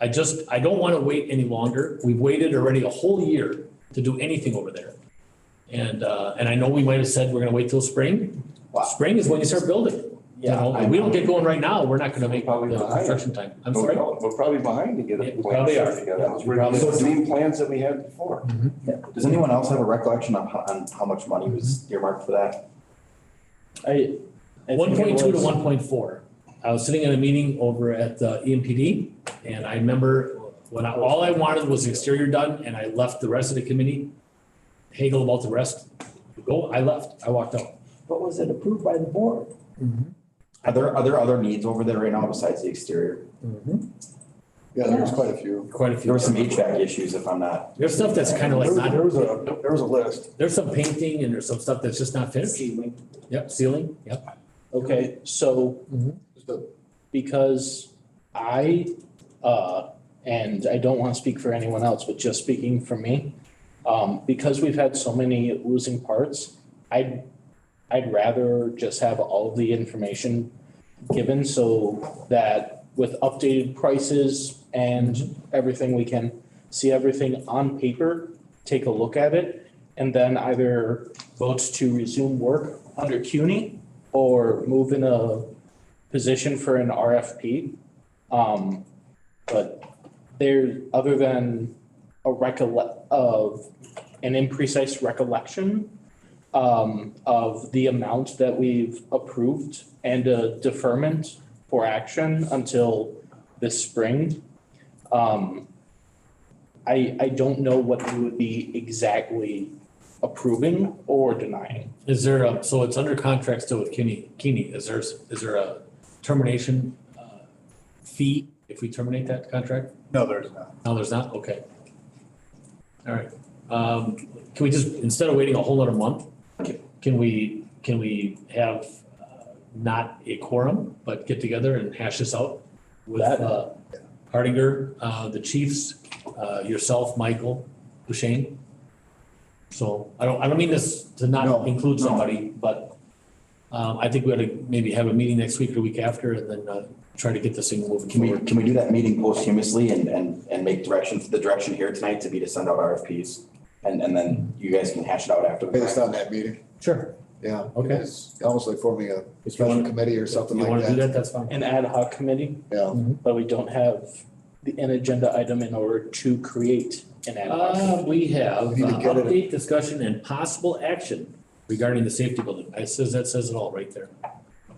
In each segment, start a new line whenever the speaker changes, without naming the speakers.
I just, I don't want to wait any longer. We've waited already a whole year to do anything over there. And, uh, and I know we might have said we're going to wait till spring.
Wow.
Spring is when you start building. You know, if we don't get going right now, we're not going to make
Probably
the
not.
construction time. I'm
No
sorry.
problem. We're probably behind to get
Yeah,
a
we
plan
probably
put
are.
together.
Yeah, we
We're
probably
the
are.
same plans that we had before.
Yeah. Does anyone else have a recollection on, how- on how much money was earmarked for that?
I. I
One
think it
point two to
was-
one point four. I was sitting in a meeting over at uh, E the EMPD and I remember when I, all I wanted was the exterior done and I left the rest of the committee. Haggle about the rest. Go, I left, I walked out.
But was it approved by the board?
Are there, are there other needs over there right now besides the exterior?
Yeah, there was quite a few.
Quite a few.
There were some HVAC issues if I'm not,
There's stuff that's kind of like
There was-
not,
There was a, there was a list.
there's some painting and there's some stuff that's just not finished. Yep, ceiling, yep.
Okay, so because I, uh, and I don't want to speak for anyone else, but just speaking for me, um, because we've had so many losing parts, I'd, I'd rather just have all of the information given so that with updated prices and everything, we can see everything on paper, take a look at it, and then either vote to resume work under CUNY or move in a position for an RFP. Um, but there, other than a recollect of an imprecise recollection um, of the amount that we've approved and a deferment for action until this spring. Um, I, I don't know what we would be exactly approving or denying.
Is there a, so it's under contract still with Kenny, Keeney. Is there, is there a termination uh, fee if we terminate that contract?
No, there's not.
No, there's not, okay. All right, um, can we just, instead of waiting a whole other month, ca- can we, can we have uh, not a quorum, but get together and hash this out with,
That-
uh, Hardinger, uh, the chiefs, uh, yourself, Michael, Duchesne? So, I don't, I don't mean this to
No,
not include
no.
somebody, but, um, I think we ought to maybe have a meeting next week or week after and then, uh, try to get this thing moving
can we,
forward.
can we do that meeting posthumously and, and, and make direction, the direction here tonight to be to send out RFPs? And, and then you guys can hash it out after. the
Based
fact.
on that meeting,
Sure.
yeah.
Okay.
It's almost like forming a
If you
special
want,
committee or something
you
like
wanna do
that.
that, that's fine.
An ad hoc committee
Yeah.
But we don't have the- an agenda item in order to create an ad hoc.
Uh, we have
We need to
uh,
get it.
update, discussion and possible action regarding the safety building. I says, that says it all right there.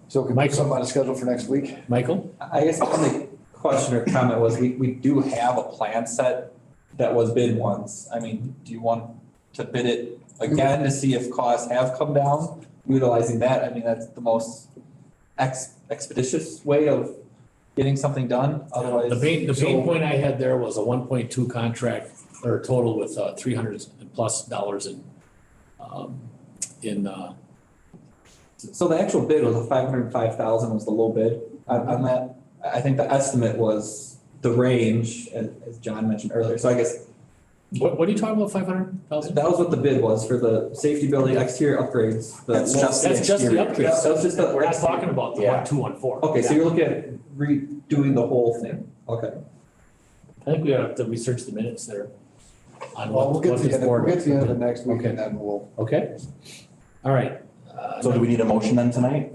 So can we
Michael.
put something on the schedule for next week?
Michael?
I guess the only question or comment was, we, we do have a plan set that was bid once. I mean, do you want to bid it again to see if costs have come down? Utilizing that, I mean, that's the most ex- expeditious way of getting something done, otherwise.
The pain, the pain
So-
point I had there was a one point two contract or total with uh three hundred plus dollars in um in uh
So the actual bid was a five hundred and five thousand was the low bid on, on that. I I think the estimate was the range, as, as John mentioned earlier. So I guess
what what are you talking about, five hundred thousand?
that was what the bid was for the safety building exterior upgrades. the
That's
low-
just the
That's just the
exterior.
upgrades.
That was just the-
We're not talking about the
Yeah.
one, two, one, four.
Okay, so you're looking at redoing the whole thing, okay.
I think we have to research the minutes there on
Well,
what
we'll get
what
to the
is
end, we'll
forward.
get to the end of it next week
Okay.
and then we'll
Okay? All right. Uh,
So do we need a motion then tonight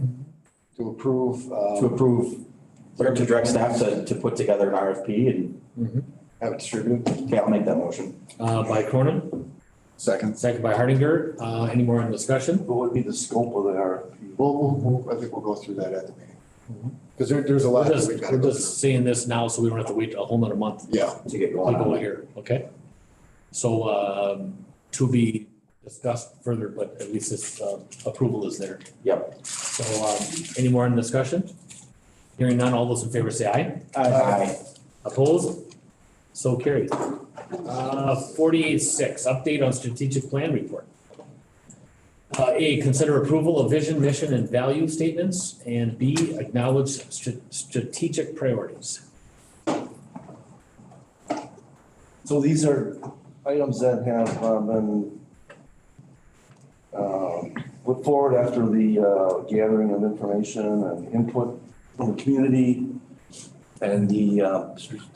to approve,
to
uh,
approve, or to direct staff to, to put together an RFP and,
have it distributed.
okay, I'll make that motion.
Uh, by Cronin,
Second.
second by Hardinger. Uh, any more on discussion?
What would be the scope of the RFP?
We'll,
Mm-hmm.
we'll, we'll- I think we'll go through that at the meeting. Because there, there's a lot
We're
that
just,
we've got to
we're
go
just
through.
seeing this now, so we don't have to wait a whole nother month
Yeah,
To get
to
going on
go
it.
here, okay? So, um, to be discussed further, but at least this, uh, approval is there.
Yep.
So, um, any more in discussion? Hearing none, all those in favor say aye.
Aye.
Opposed? So carried. Uh, forty-eight six, update on strategic plan report. Uh, A, consider approval of vision, mission, and value statements, and B, acknowledge stra- strategic priorities.
So these are items that have uh, been um, put forward after the uh, gathering of information and input from the community and the uh,